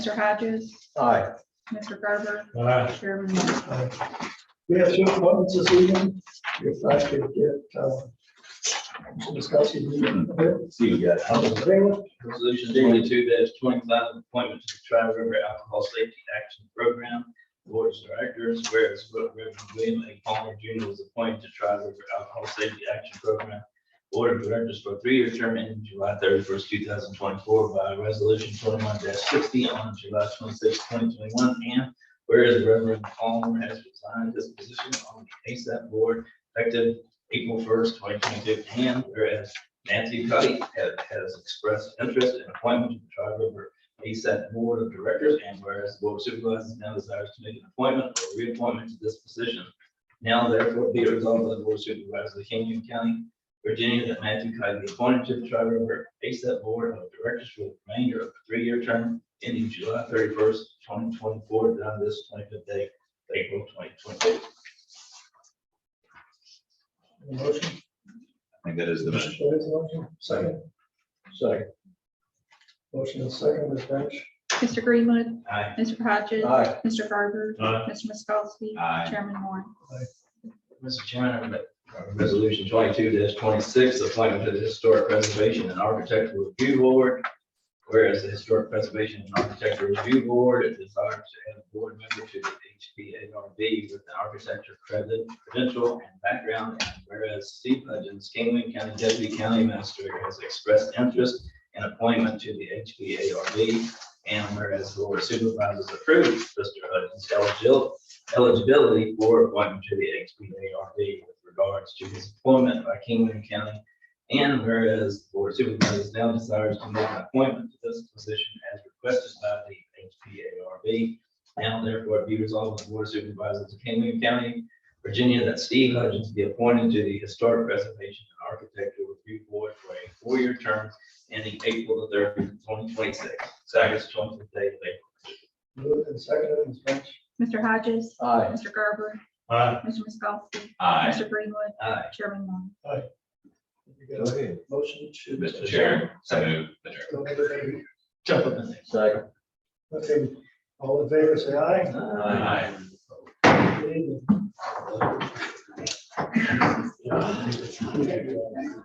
Mr. Hodges, Aye. Mr. Garber, Aye. Chairman Moore. We have two appointments this evening. If I could get, uh, to discuss it. See you guys. Resolution seventy-two twenty-five, appointment to the Tri River Alcohol Safety Action Program, Board of Directors, whereas Reverend William A. Palmer Jr. was appointed to Tri River Alcohol Safety Action Program, Board of Directors for a three-year term ending July thirty-first, two thousand twenty-four by Resolution twenty-one sixty on July 26, twenty twenty-one, and whereas Reverend Palmer has resigned his position on the ASAP Board effective April first, twenty twenty-two, and whereas Nancy Cuddy has, has expressed interest in appointment to the Tri River ASAP Board of Directors, and whereas the Board of Supervisors now desires to make an appointment or reappointment to this position. Now therefore be it resolved by the Board of Supervisors of Kenyon County, Virginia, that Nancy Cuddy be appointed to the Tri River ASAP Board of Directors for the remainder of a three-year term ending July thirty-first, twenty twenty-four, down to this twenty-fifth day, of April twenty twenty-eight. Motion. I think that is the motion. Second. Second. Motion is second, Ms. Branch. Mr. Greenwood, Aye. Mr. Hodges, Aye. Mr. Garber, Aye. Mr. Miskowski, Aye. Chairman Moore. Mr. Chairman, I make, uh, Resolution twenty-two twenty-six, appointment to the Historic Preservation and Architectural Review Board. Whereas the Historic Preservation and Architectural Review Board is desired to add a board member to the HPARB with the architecture credit, credential and background. And Whereas Steve Hudgens, Kingman County Deputy County Administrator, has expressed interest in appointment to the HPARB. And whereas the Board of Supervisors approved Mr. Hudgens' eligibility eligibility for appointment to the HPARB with regards to his appointment by Kingman County. And whereas the Board of Supervisors now desires to make an appointment to this position as requested by the HPARB. Now therefore be resolved by the Board of Supervisors of Kingman County, Virginia, that Steve Hudgens be appointed to the Historic Preservation and Architectural Review Board for a four-year term ending April the thirtieth, twenty twenty-six. Second, twenty-fifth day of April. Moved and second, Ms. Branch. Mr. Hodges, Aye. Mr. Garber, Mr. Miskowski, Aye. Mr. Greenwood, Aye. Chairman Moore. Go ahead. Motion to. Mr. Chair, so move. adjourn. Go ahead. Jump up in there. Second. Okay, all in favor, say aye. Aye. Aye.